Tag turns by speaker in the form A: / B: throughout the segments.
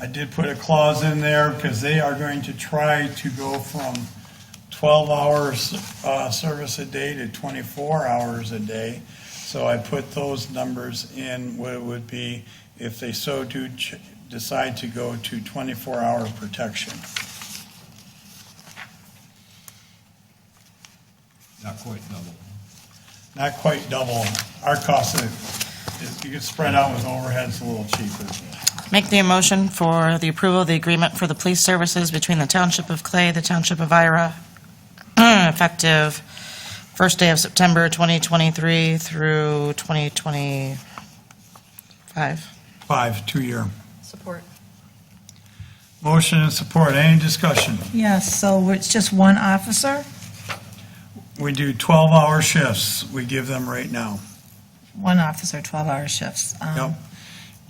A: I did put a clause in there because they are going to try to go from twelve hours, uh, service a day to twenty-four hours a day. So I put those numbers in, what it would be if they so do ch- decide to go to twenty-four hour protection.
B: Not quite double.
A: Not quite double. Our cost is, is- you can spread out with overheads a little cheaper.
C: Make the motion for the approval of the agreement for the police services between the Township of Clay, the Township of Ira, effective first day of September 2023 through 2025.
A: Five, two-year.
D: Support.
A: Motion and support, any discussion?
E: Yes, so it's just one officer,
A: We do 12-hour shifts, we give them right now.
E: one officer, 12-hour shifts. Um,
A: Yep.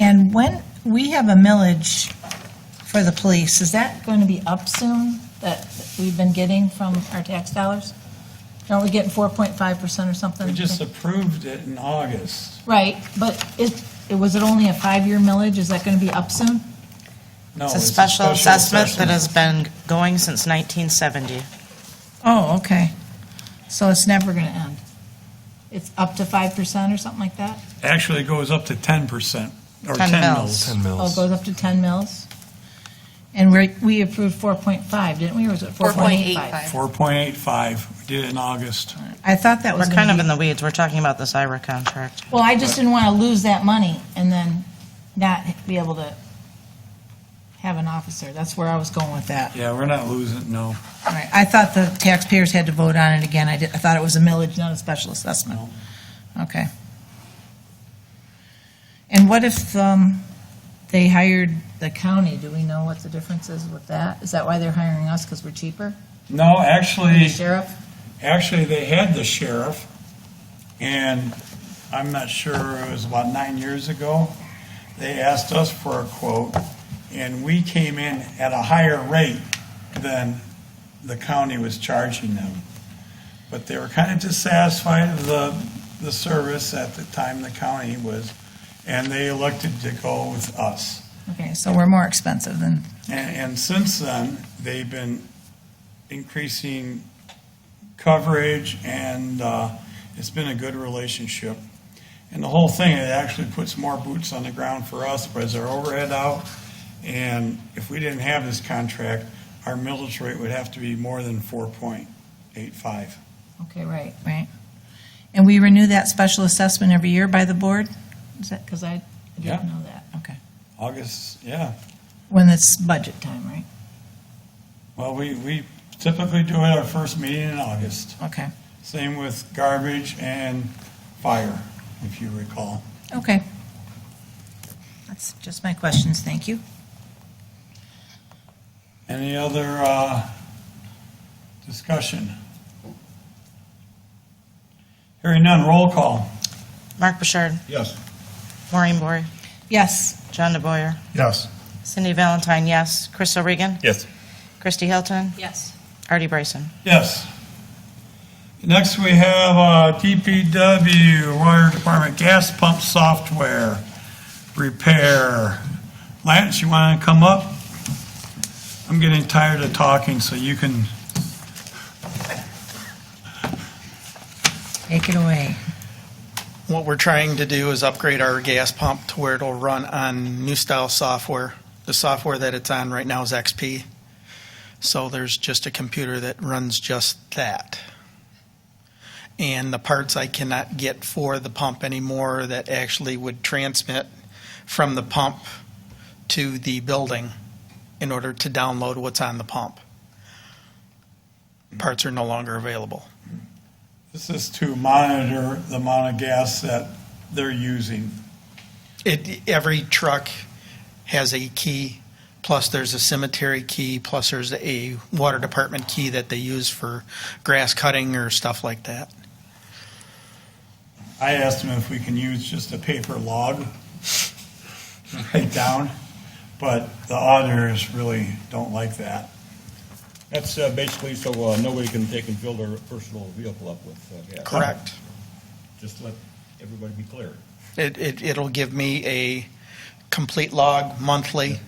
E: And when, we have a millage for the police, is that going to be up soon that we've been getting from our tax dollars? Aren't we getting 4.5% or something?
A: We just approved it in August.
E: Right, but it, it- was it only a five-year millage? Is that going to be up soon?
A: No,
C: It's a special assessment that
A: assessment.
C: has been going since 1970.
E: Oh, okay. So it's never going to end? It's up to 5% or something like that?
A: Actually it goes up to 10%, or
C: 10
A: 10
C: mils.
A: mills.
E: Oh, it goes up to 10 mils? And we we approved 4.5, didn't we, or was it 4.85?
A: 4.85, we did it in August.
E: I thought that
C: We're
E: was
C: kind
E: going
C: of
E: to
C: in the weeds, we're talking about this IRA contract.
E: be... Well, I just didn't want to lose that money and then not be able to have an officer. That's where I was going with that.
A: Yeah, we're not losing, no.
E: All right, I thought the taxpayers had to vote on it again. I did, I thought it was a millage, not a special assessment. Okay. And what if, um, they hired the county? Do we know what the difference is with that? Is that why they're hiring us, because we're cheaper?
A: No,
E: Than the
A: actually,
E: sheriff?
A: actually, they had the sheriff, and I'm not sure, it was about nine years ago, they asked us for a quote, and we came in at a higher rate than the county was charging them. But they were kind of dissatisfied with the, the service at the time the county was, and they elected to go with us.
E: Okay, so we're more expensive than,
A: And, and since then, they've been increasing coverage and, uh, it's been a good relationship. And the whole thing, it actually puts more boots on the ground for us, spreads our overhead out. And if we didn't have this contract, our millage rate would have to be more than four point eight five.
E: okay, right, right. And we renew that special assessment every year by the board? Is that, because I
A: Yeah.
E: didn't know that, okay.
A: August, yeah.
E: When it's budget time, right?
A: Well, we, we typically do it our first meeting in August.
E: Okay,
A: Same with garbage and fire, if you recall.
E: okay. That's just my questions, thank you.
A: Any other uh, discussion? Hearing none, roll call.
C: Mark Bouchard,
B: Yes.
C: Maureen Bory,
E: Yes.
C: John DeBoyer,
A: Yes.
C: Cindy Valentine, yes. Chris O'Regan,
B: Yes.
C: Christy Hilton,
D: Yes.
C: Artie Bryson.
A: Yes. Next, we have uh, DPW, Wire Department Gas Pump Software Repair. Lance, you want to come up? I'm getting tired of talking, so you can,
E: Take it away.
F: What we're trying to do is upgrade our gas pump to where it'll run on new style software. The software that it's on right now is XP. So there's just a computer that runs just that. And the parts I cannot get for the pump anymore that actually would transmit from the pump to the building in order to download what's on the pump. Parts are no longer available.
A: this is to monitor the amount of gas that they're using.
F: It, every truck has a key, plus there's a cemetery key, plus there's a water department key that they use for grass cutting or stuff like that.
A: I asked him if we can use just a paper log, write down, but the auditors really don't like that.
B: That's uh, basically so uh, nobody can take and fill their personal vehicle up with uh, gas.
F: Correct.
B: Just let everybody be clear.
F: It, it, it'll give me a complete log monthly.